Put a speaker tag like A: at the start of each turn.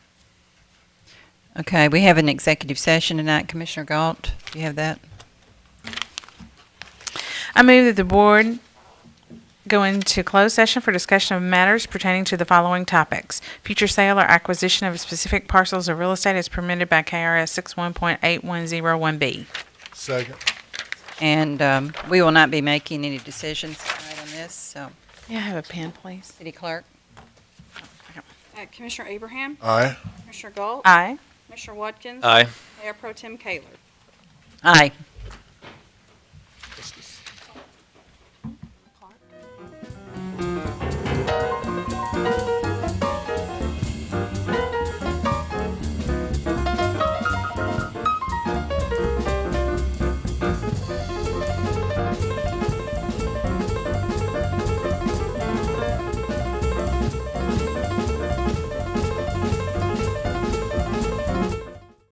A: Okay, we have an executive session tonight. Commissioner Galt, do you have that?
B: I move that the board go into closed session for discussion of matters pertaining to the following topics. Future sale or acquisition of specific parcels of real estate is permitted by KRS 61.8101B.
C: Second.
A: And um, we will not be making any decisions tonight on this, so,
B: May I have a pen, please?
A: City Clerk?
D: Uh, Commissioner Abraham?
C: Aye.
D: Commissioner Galt?
B: Aye.
D: Commissioner Watkins?
E: Aye.
D: Mayor Pro Tem Kaler?
A: Aye.